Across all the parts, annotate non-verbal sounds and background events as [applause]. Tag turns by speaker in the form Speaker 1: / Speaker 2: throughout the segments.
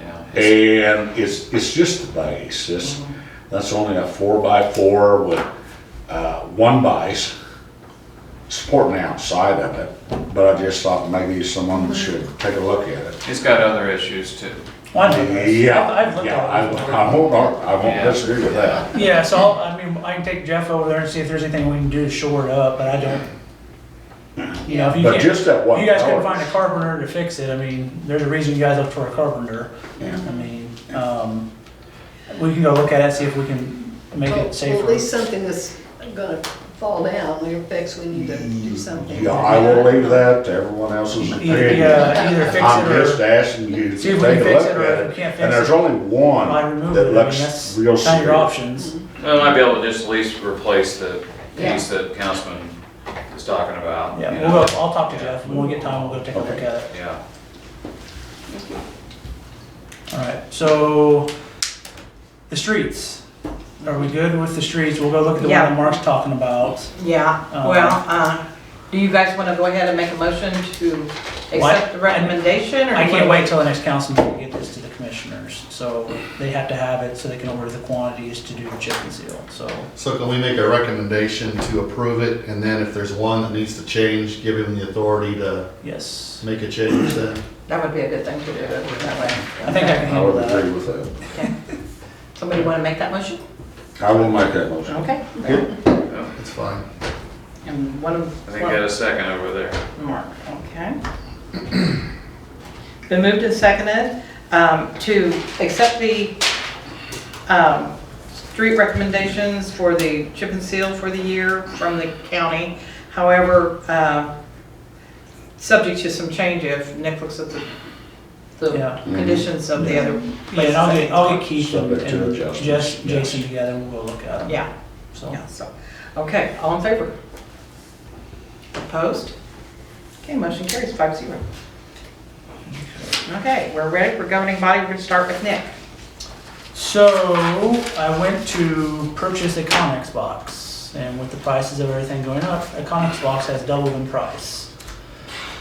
Speaker 1: Yeah. It's-
Speaker 2: And it's, it's just the base, it's, that's only a four by four with, uh, one base supporting the outside of it, but I just thought maybe someone should take a look at it.
Speaker 1: It's got other issues too.
Speaker 3: Well, I know this.
Speaker 2: Yeah,
Speaker 3: I've- I've looked
Speaker 2: yeah,
Speaker 3: at it.
Speaker 2: I, I won't, ar- I
Speaker 1: Yeah.
Speaker 2: won't disagree with that.
Speaker 3: Yeah, so I'll, I mean, I can take Jeff over there and see if there's anything we can do to shore it up, but I don't, you know, if you
Speaker 2: But
Speaker 3: can't,
Speaker 2: just
Speaker 3: if
Speaker 2: that one.
Speaker 3: you guys couldn't
Speaker 2: color.
Speaker 3: find a carpenter to fix it, I mean, there's a reason you guys look for a carpenter.
Speaker 2: Yeah.
Speaker 3: I mean, um, we can go look at it, see if we can make
Speaker 4: Well,
Speaker 3: it safer.
Speaker 4: At least something that's gonna fall down, the effects, we need to do something.
Speaker 2: Yeah, I will leave that to everyone else's
Speaker 3: Either,
Speaker 2: opinion.
Speaker 3: yeah, either fix
Speaker 2: I'm
Speaker 3: it
Speaker 2: just
Speaker 3: or,
Speaker 2: asking you to
Speaker 3: See
Speaker 2: take a
Speaker 3: if we can fix
Speaker 2: look
Speaker 3: it,
Speaker 2: at
Speaker 3: or if we
Speaker 2: it,
Speaker 3: can't
Speaker 2: and
Speaker 3: fix
Speaker 2: there's
Speaker 3: it,
Speaker 2: only
Speaker 3: I
Speaker 2: one
Speaker 3: remove it, I
Speaker 2: that
Speaker 3: mean,
Speaker 2: looks
Speaker 3: that's
Speaker 2: real
Speaker 3: kind of your
Speaker 2: serious.
Speaker 3: options.
Speaker 4: Mm-hmm.
Speaker 1: Well, I might be able to just at least replace the piece that Councilman is talking about.
Speaker 3: Yeah,
Speaker 1: you
Speaker 3: we'll
Speaker 1: know.
Speaker 3: go, I'll talk to Jeff, when we get time, we'll go take a look at
Speaker 2: Okay.
Speaker 3: it.
Speaker 1: Yeah.
Speaker 3: All right, so the streets. Are we good with the streets? We'll go look at the one
Speaker 5: Yeah.
Speaker 3: that Mark's talking about.
Speaker 5: Yeah,
Speaker 3: Um,
Speaker 5: well, uh, do you guys want to go ahead and make a motion to accept the recommendation? or
Speaker 3: I
Speaker 5: do you
Speaker 3: can't
Speaker 5: wanna-
Speaker 3: wait till the next council meeting to get this to the commissioners. So they have to have it so they can order the quantities to do the chip and seal, so.
Speaker 6: So can we make a recommendation to approve it, and then if there's one that needs to change, give him the authority to
Speaker 3: Yes,
Speaker 6: make a change then?
Speaker 5: That would be a good thing to do that way.
Speaker 3: I think I can
Speaker 2: I
Speaker 3: handle
Speaker 2: would agree
Speaker 3: that.
Speaker 2: with that.
Speaker 5: Somebody want to make that motion?
Speaker 2: I will make that motion.
Speaker 5: Okay.
Speaker 1: I
Speaker 6: That's fine.
Speaker 5: And one of.
Speaker 1: think uh, I got a second over there.
Speaker 5: Mark, okay. Been moved and seconded um, to accept the um, street recommendations for the chip and seal for the year from the county. However, uh, subject to some change if Nick looks at the,
Speaker 3: Yeah.
Speaker 5: the conditions of the other.
Speaker 3: Yeah, and I'll get, I'll get Keith and
Speaker 2: Subject to
Speaker 3: and
Speaker 2: adjustments,
Speaker 3: Jess,
Speaker 2: yes.
Speaker 3: Jason together and we'll go look at them.
Speaker 5: Yeah,
Speaker 3: So,
Speaker 5: yeah, so, okay, all in favor? Opposed? Okay, motion carries five zero. Okay, we're ready, we're governing body, we're gonna start with Nick.
Speaker 3: so I went to purchase a Conex box and with the prices of everything going up, a Conex box has doubled in price.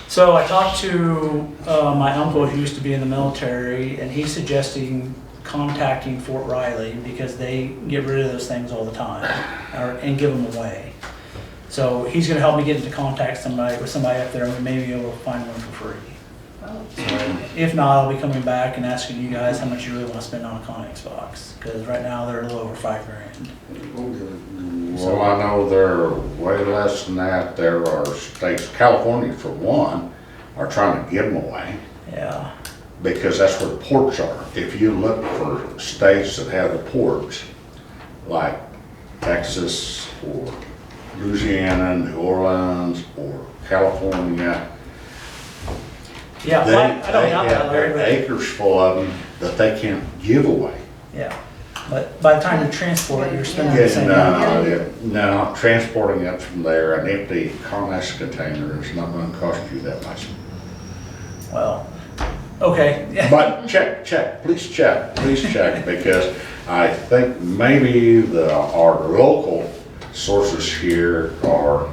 Speaker 3: So I talked to uh, my uncle who used to be in the military, and he's suggesting contacting Fort Riley because they get rid of those things all the time or, and give them away. So he's going to help me get into contact somebody with somebody up there, and we may be able to find one for free. So if not, I'll be coming back and asking you guys how much you really want to spend on a Conex box because right now they're a little over five grand.
Speaker 2: Well, I know they're way less than that. There are states, California for one, are trying to give them away
Speaker 3: Yeah,
Speaker 2: because that's where the ports are. If you look for states that have the ports, like Texas or Louisiana, New Orleans or California,
Speaker 3: yeah.
Speaker 2: they,
Speaker 3: I, I don't
Speaker 2: they
Speaker 3: doubt that,
Speaker 2: have
Speaker 3: Larry.
Speaker 2: their
Speaker 3: but-
Speaker 2: acres full of them that they can't give away.
Speaker 3: Yeah, but by the time you transport it, you're spending the
Speaker 2: Yeah,
Speaker 3: same.
Speaker 2: no, yeah, no, transporting it from there, an empty Conex container is not gonna cost you that much.
Speaker 3: Well, okay, [laughs] yeah,
Speaker 2: But check, check, please check, please check, because I think maybe the, our local sources here are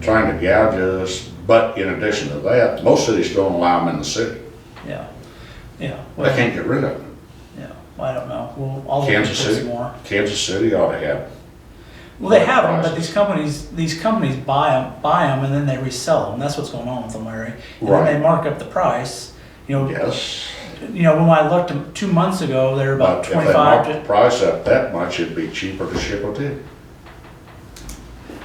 Speaker 2: trying to gouge us, but in addition to that, most cities don't allow them in the city.
Speaker 3: yeah, yeah.
Speaker 2: They
Speaker 3: well,
Speaker 2: can't get rid of them.
Speaker 3: Yeah, well, I don't know. Well, I'll look into
Speaker 2: Kansas
Speaker 3: this
Speaker 2: City,
Speaker 3: more.
Speaker 2: Kansas City ought to have,
Speaker 3: Well, they have them, but these companies, these companies buy them, buy them, and then they resell them. That's what's going on with them, Larry. And then they
Speaker 2: Right.
Speaker 3: mark up the price. You know,
Speaker 2: yes.
Speaker 3: you know, when I looked them two months ago, they're about
Speaker 2: But if they
Speaker 3: twenty-five
Speaker 2: mark the
Speaker 3: to,
Speaker 2: price up that much, it'd be cheaper to ship it in.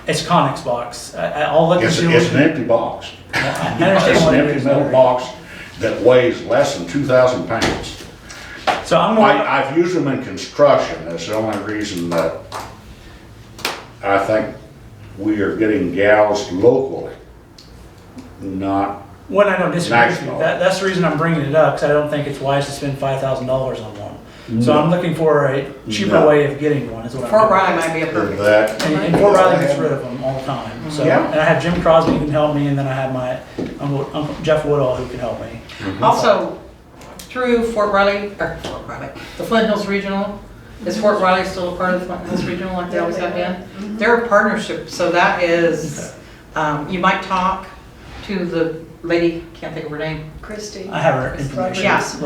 Speaker 3: it's Conex box. I, I- I'll look and
Speaker 2: It's,
Speaker 3: see.
Speaker 2: it's an
Speaker 3: what-
Speaker 2: empty box.
Speaker 3: I
Speaker 2: It's
Speaker 3: understand
Speaker 2: an
Speaker 3: what it
Speaker 2: empty
Speaker 3: is,
Speaker 2: metal
Speaker 3: Larry.
Speaker 2: box that weighs less than two thousand pounds.
Speaker 3: So I'm
Speaker 2: I,
Speaker 3: gonna,
Speaker 2: I've used them in construction, that's the only reason that I think we are getting gouged locally. Not,
Speaker 3: when I don't disagree with you,
Speaker 2: Maximo.
Speaker 3: that, that's the reason I'm bringing it up, because I don't think it's wise to spend five thousand dollars on one. So I'm looking for a cheaper
Speaker 2: No.
Speaker 3: way of getting one, is what I'm.
Speaker 5: Fort
Speaker 3: doing.
Speaker 5: Riley might be a perfect.
Speaker 2: that,
Speaker 3: And, and Fort Riley gets rid of them all the time. So,
Speaker 2: Yeah.
Speaker 3: and I have Jim Crosby who can help me, and then I have my uncle, uncle Jeff Woodall who can help me.
Speaker 5: Also, through Fort Riley, or Fort Riley, the Flint Hills Regional, is Fort Riley still a part of the Flint Hills Regional like they always have been? They're a partnership, so that is, um, you might talk to the lady, can't think of her name,
Speaker 4: Christie.
Speaker 3: I have her information.
Speaker 5: Yeah.